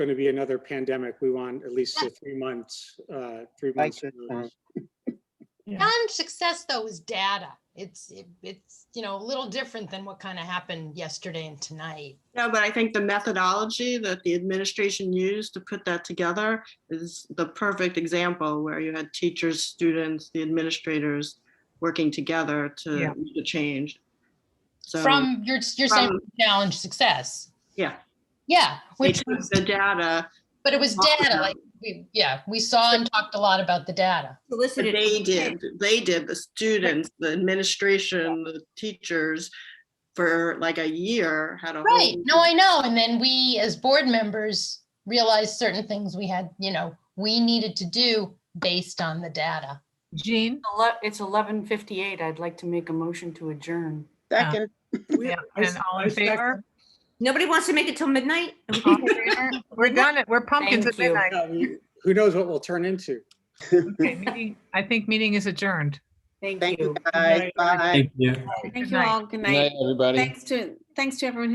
going to be another pandemic, we want at least a three months, uh, three I months. get that. notice. John's success though is data. It's, it- it's, you know, a little different than what kind of happened yesterday and tonight. No, but I think the methodology that the administration used to put that together is the perfect example where you had teachers, students, the administrators working together Yeah. to make the change. So, From, you're, you're saying from- challenge success. yeah, Yeah, they which, took the data but it was data, like, we, yeah, we saw and talked a lot about the data. that solicited. they did, they did, the students, the administration, the teachers for like a year had a whole. Right, no, I know, and then we, as board members, realized certain things we had, you know, we needed to do based on the data. Jean? Ele- It's 11:58. I'd like to make a motion to adjourn. Second, Yeah, And all in favor? Nobody wants to make it till midnight? All in favor? We're done, at- we're pumpkins at Thank you. midnight. Yeah, we- Who knows what we'll turn into? Okay, meeting- I think meeting is adjourned. Thank Thank you. you guys. Bye. Thank you. Thank Good you night. all. Good night. everybody. Thanks to, thanks to everyone who